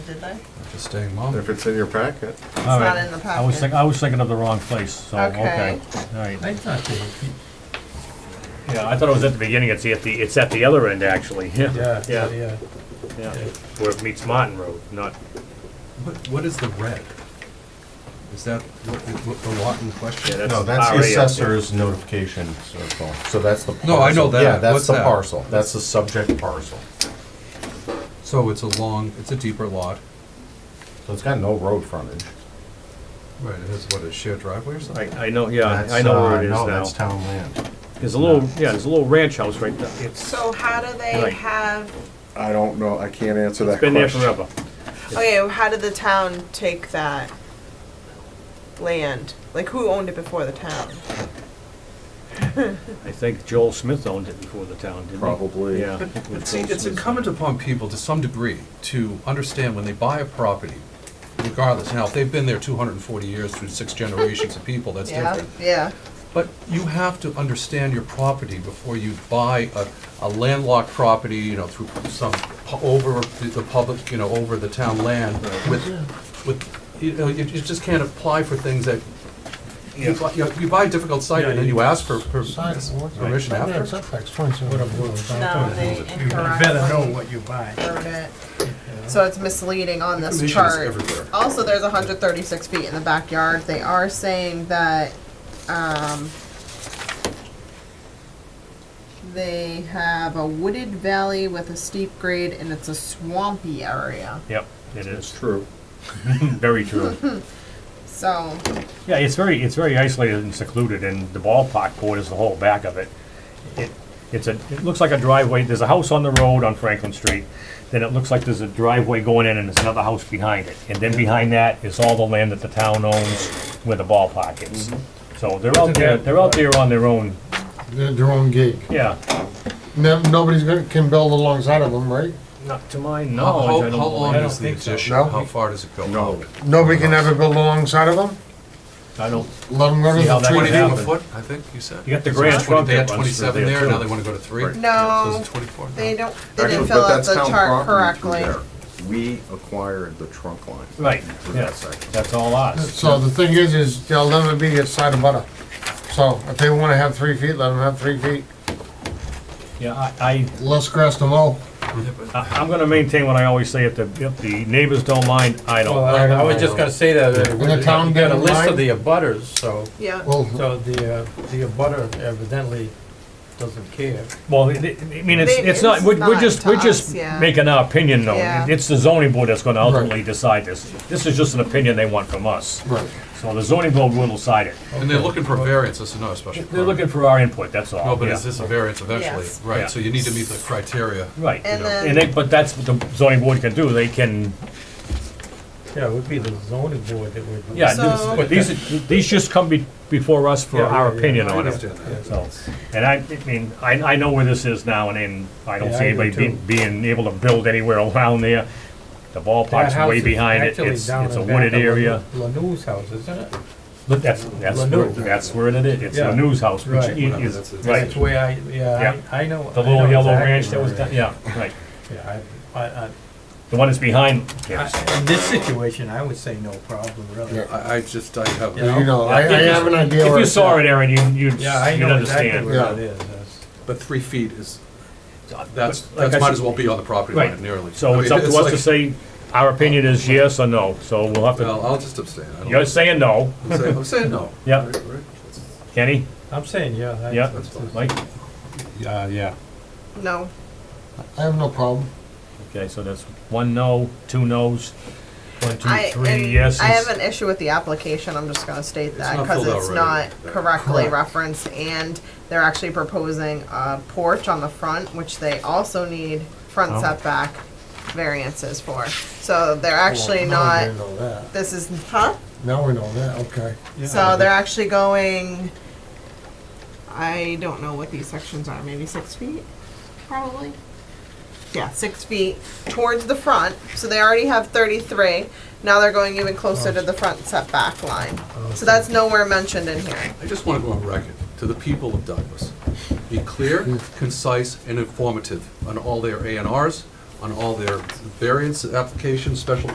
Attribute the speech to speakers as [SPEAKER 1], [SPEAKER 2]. [SPEAKER 1] Did they?
[SPEAKER 2] Just staying mom.
[SPEAKER 3] If it's in your packet,
[SPEAKER 4] All
[SPEAKER 1] not
[SPEAKER 4] right.
[SPEAKER 1] in the
[SPEAKER 4] I
[SPEAKER 1] packet.
[SPEAKER 4] was thinking, I was thinking of the wrong place, so,
[SPEAKER 2] Oh,
[SPEAKER 1] Okay.
[SPEAKER 4] okay. All right.
[SPEAKER 5] I thought they,
[SPEAKER 4] Yeah, I thought it was at the beginning, it's at the, it's at the other end, actually,
[SPEAKER 5] yeah,
[SPEAKER 4] yeah.
[SPEAKER 5] yeah, yeah.
[SPEAKER 4] yeah. Where it meets Martin Road, not,
[SPEAKER 2] What, what is the red? Is that what, what the lot in question?
[SPEAKER 4] yeah, that's.
[SPEAKER 6] No, that's the
[SPEAKER 4] RA up there.
[SPEAKER 6] assessor's notification circle, so that's the.
[SPEAKER 2] No, I know
[SPEAKER 6] parcel.
[SPEAKER 2] that.
[SPEAKER 6] Yeah, that's
[SPEAKER 2] What's
[SPEAKER 6] the
[SPEAKER 2] that?
[SPEAKER 6] parcel, that's the subject parcel,
[SPEAKER 2] So it's a long, it's a deeper lot.
[SPEAKER 6] so it's got no road frontage.
[SPEAKER 2] Right, it has what, a shared driveway or something?
[SPEAKER 4] I, I know, yeah, I
[SPEAKER 6] That's,
[SPEAKER 4] know
[SPEAKER 6] uh,
[SPEAKER 4] where it
[SPEAKER 6] No, that's
[SPEAKER 4] is now.
[SPEAKER 6] town land.
[SPEAKER 4] There's a little, yeah, there's a little ranch house right there. It's,
[SPEAKER 1] So how do they
[SPEAKER 4] Right.
[SPEAKER 1] have,
[SPEAKER 3] I don't know, I can't answer that
[SPEAKER 4] it's
[SPEAKER 3] question.
[SPEAKER 4] been there forever.
[SPEAKER 1] okay, well, how did the town take that land? Like, who owned it before the town?
[SPEAKER 4] I think Joel Smith owned it before the town, didn't he?
[SPEAKER 3] Probably.
[SPEAKER 4] Yeah.
[SPEAKER 2] But see, it's incumbent upon people to some degree to understand when they buy a property, regardless, now, if they've been there two hundred and forty years through six generations of people, that's different.
[SPEAKER 1] yeah.
[SPEAKER 2] But you have to understand your property before you buy a, a landlocked property, you know, through some, pu- over the the public, you know, over the town land with, with, you know, you you just can't apply for things that, you buy, you know, you buy a difficult site and then you ask for per- permission after.
[SPEAKER 1] No, they
[SPEAKER 5] Better know
[SPEAKER 1] incorrectly
[SPEAKER 5] what you buy.
[SPEAKER 1] wrote it. So it's misleading on this
[SPEAKER 2] Information is
[SPEAKER 1] chart.
[SPEAKER 2] everywhere.
[SPEAKER 1] Also, there's hundred thirty-six feet in the backyard. They are saying that, um, they have a wooded valley with a steep grade and it's a swampy area.
[SPEAKER 4] Yep, it
[SPEAKER 3] It's
[SPEAKER 4] is,
[SPEAKER 3] true.
[SPEAKER 4] very true.
[SPEAKER 1] So,
[SPEAKER 4] Yeah, it's very, it's very isolated and secluded, and the ballpark court is the whole back of it. It, it's a, it looks like a driveway, there's a house on the road on Franklin Street, then it looks like there's a driveway going in and there's another house behind it. And then behind that is all the land that the town owns where the ballpark is.
[SPEAKER 2] Mm-hmm.
[SPEAKER 4] So they're out there, they're out there on their own,
[SPEAKER 7] Their their own gig.
[SPEAKER 4] yeah.
[SPEAKER 7] No, nobody's gonna, can build alongside of them, right?
[SPEAKER 4] Not to my
[SPEAKER 2] How,
[SPEAKER 4] knowledge, I
[SPEAKER 2] how
[SPEAKER 4] don't
[SPEAKER 2] how long
[SPEAKER 4] believe- I don't
[SPEAKER 2] is the
[SPEAKER 4] think so.
[SPEAKER 2] addition?
[SPEAKER 7] No.
[SPEAKER 2] How far does it go?
[SPEAKER 3] No.
[SPEAKER 7] Nobody can ever build alongside of them?
[SPEAKER 4] I don't,
[SPEAKER 7] Let them go to
[SPEAKER 4] See how
[SPEAKER 7] the
[SPEAKER 4] that
[SPEAKER 7] tree.
[SPEAKER 4] would
[SPEAKER 2] Twenty-two a
[SPEAKER 4] happen.
[SPEAKER 2] foot, I think you said?
[SPEAKER 4] you got the Grand Trunk
[SPEAKER 2] They had
[SPEAKER 4] that runs through
[SPEAKER 2] twenty-seven
[SPEAKER 4] there
[SPEAKER 2] there, now they
[SPEAKER 4] too.
[SPEAKER 2] wanna go to three?
[SPEAKER 3] Right.
[SPEAKER 2] So
[SPEAKER 1] no,
[SPEAKER 2] it's twenty-four now.
[SPEAKER 1] they don't, they
[SPEAKER 3] Actually,
[SPEAKER 1] didn't fill
[SPEAKER 3] but
[SPEAKER 1] out
[SPEAKER 3] that's
[SPEAKER 1] the
[SPEAKER 3] town
[SPEAKER 1] chart
[SPEAKER 3] property through
[SPEAKER 1] correctly.
[SPEAKER 3] there. We acquired the trunk line.
[SPEAKER 4] Right,
[SPEAKER 3] For that
[SPEAKER 4] yes,
[SPEAKER 3] section.
[SPEAKER 4] that's all ours.
[SPEAKER 7] So the thing is, is there'll never be a side of butter. So if they wanna have three feet, let them have three feet.
[SPEAKER 4] Yeah, I, I,
[SPEAKER 7] Less grass to mow.
[SPEAKER 4] I- I'm gonna maintain what I always say, if the, if the neighbors don't mind, I
[SPEAKER 5] Well,
[SPEAKER 4] don't.
[SPEAKER 5] Oh, I I was just gonna say that, uh,
[SPEAKER 7] When the town
[SPEAKER 5] we got a
[SPEAKER 7] didn't
[SPEAKER 5] list of
[SPEAKER 7] mind-
[SPEAKER 5] the abutters, so,
[SPEAKER 1] Yeah.
[SPEAKER 7] Well,
[SPEAKER 5] so the, uh, the abutter evidently doesn't care.
[SPEAKER 4] Well, it- it- I mean, it's,
[SPEAKER 1] They-
[SPEAKER 4] it's not,
[SPEAKER 1] it's
[SPEAKER 4] we're we're
[SPEAKER 1] not
[SPEAKER 4] just,
[SPEAKER 1] to
[SPEAKER 4] we're
[SPEAKER 1] us,
[SPEAKER 4] just
[SPEAKER 1] yeah.
[SPEAKER 4] making our opinion
[SPEAKER 1] Yeah.
[SPEAKER 4] known. It's the zoning board that's gonna
[SPEAKER 7] Right.
[SPEAKER 4] ultimately decide this. This is just an opinion they want from us.
[SPEAKER 7] right.
[SPEAKER 4] So the zoning board will decide it.
[SPEAKER 2] And they're looking for variance, this is not a special permit.
[SPEAKER 4] They're looking for our input, that's all.
[SPEAKER 2] No, Oh, but
[SPEAKER 4] yeah.
[SPEAKER 2] is this a variance eventually?
[SPEAKER 1] Yes.
[SPEAKER 4] Yeah.
[SPEAKER 2] Right, so you need to meet the criteria.
[SPEAKER 4] Right.
[SPEAKER 1] And then-
[SPEAKER 4] And they, but that's what the zoning board can do. They can,
[SPEAKER 5] Yeah, it would be the zoning board that would.
[SPEAKER 4] yeah,
[SPEAKER 1] So-
[SPEAKER 4] this- but these, these just come be- before us for
[SPEAKER 5] Yeah,
[SPEAKER 4] our
[SPEAKER 5] yeah, yeah.
[SPEAKER 4] opinion
[SPEAKER 5] I
[SPEAKER 4] on it.
[SPEAKER 5] understand that.
[SPEAKER 4] So, and I, I mean, I, I know where this is now, and, and I don't
[SPEAKER 5] Yeah,
[SPEAKER 4] see
[SPEAKER 5] I do
[SPEAKER 4] anybody be-
[SPEAKER 5] too.
[SPEAKER 4] being able to build anywhere around there. The
[SPEAKER 5] That
[SPEAKER 4] ballpark's
[SPEAKER 5] house
[SPEAKER 4] way
[SPEAKER 5] is
[SPEAKER 4] behind it,
[SPEAKER 5] actually
[SPEAKER 4] it's,
[SPEAKER 5] down
[SPEAKER 4] it's a
[SPEAKER 5] in back
[SPEAKER 4] wooded
[SPEAKER 5] of
[SPEAKER 4] area.
[SPEAKER 5] La- Lanou's house, isn't it?
[SPEAKER 4] But that's, that's
[SPEAKER 5] La
[SPEAKER 4] where,
[SPEAKER 5] Noue.
[SPEAKER 4] that's where it is, it's
[SPEAKER 5] Yeah.
[SPEAKER 4] the news house, which
[SPEAKER 5] Right.
[SPEAKER 4] i-
[SPEAKER 2] That's
[SPEAKER 4] is,
[SPEAKER 2] the-
[SPEAKER 4] right,
[SPEAKER 5] That's where I, yeah,
[SPEAKER 4] Yeah.
[SPEAKER 5] I I know.
[SPEAKER 4] the
[SPEAKER 5] I
[SPEAKER 4] little
[SPEAKER 5] know
[SPEAKER 4] yellow
[SPEAKER 5] exactly
[SPEAKER 4] ranch that was,
[SPEAKER 5] where
[SPEAKER 4] down-
[SPEAKER 5] it
[SPEAKER 4] yeah, right.
[SPEAKER 5] is. Yeah, I, I,
[SPEAKER 4] The one that's behind, yes.
[SPEAKER 5] I, in this situation, I would say no problem, really.
[SPEAKER 2] I, I just, I have.
[SPEAKER 5] Yeah.
[SPEAKER 7] You know, I, I have an idea.
[SPEAKER 4] If
[SPEAKER 7] where
[SPEAKER 4] you
[SPEAKER 7] it's
[SPEAKER 4] saw
[SPEAKER 7] at.
[SPEAKER 4] it, Aaron, you, you'd,
[SPEAKER 5] Yeah, I
[SPEAKER 4] you'd
[SPEAKER 5] know exactly
[SPEAKER 4] understand.
[SPEAKER 5] where
[SPEAKER 7] Yeah.
[SPEAKER 5] it is. That's-
[SPEAKER 2] But three feet is, that's,
[SPEAKER 4] But like
[SPEAKER 2] that
[SPEAKER 4] I
[SPEAKER 2] might
[SPEAKER 4] said-
[SPEAKER 2] as well be on the property
[SPEAKER 4] Right.
[SPEAKER 2] line nearly. I
[SPEAKER 4] So
[SPEAKER 2] mean,
[SPEAKER 4] it's up to us
[SPEAKER 2] like-
[SPEAKER 4] to say, our opinion is yes or no, so we'll have
[SPEAKER 2] Well,
[SPEAKER 4] to,
[SPEAKER 2] I'll just abstain. I don't-
[SPEAKER 4] you're saying no,
[SPEAKER 2] I'm saying- I'm saying no.
[SPEAKER 4] Yeah.
[SPEAKER 2] Right, right.
[SPEAKER 4] Kenny?
[SPEAKER 5] I'm saying, yeah. that's-
[SPEAKER 4] Yeah,
[SPEAKER 2] That's fine.
[SPEAKER 4] Mike?
[SPEAKER 6] Yeah, yeah.
[SPEAKER 1] No,
[SPEAKER 7] I have no problem.
[SPEAKER 4] Okay, so that's one no, two no's, one, two,
[SPEAKER 1] I,
[SPEAKER 4] three
[SPEAKER 1] and
[SPEAKER 4] yeses.
[SPEAKER 1] I have an issue with the application, I'm just gonna state that,
[SPEAKER 2] not
[SPEAKER 1] cause
[SPEAKER 2] filled out
[SPEAKER 1] it's
[SPEAKER 2] right.
[SPEAKER 1] not
[SPEAKER 2] Right.
[SPEAKER 1] correctly
[SPEAKER 7] Correct.
[SPEAKER 1] referenced, and they're actually proposing a porch on the front, which they also need front
[SPEAKER 4] Oh.
[SPEAKER 1] setback variances for, so they're actually
[SPEAKER 7] Now
[SPEAKER 1] not,
[SPEAKER 7] we know that.
[SPEAKER 1] this is, huh?
[SPEAKER 7] Now we know that, okay.
[SPEAKER 1] So they're actually going, I don't know what these sections are, maybe six feet, probably? Yeah, six feet towards the front, so they already have thirty-three, now they're going even closer to the front setback line. So that's nowhere mentioned in here.
[SPEAKER 2] I just want to go on record to the people of Douglas. Be clear, concise, and informative on all their A and Rs, on all their variance applications, special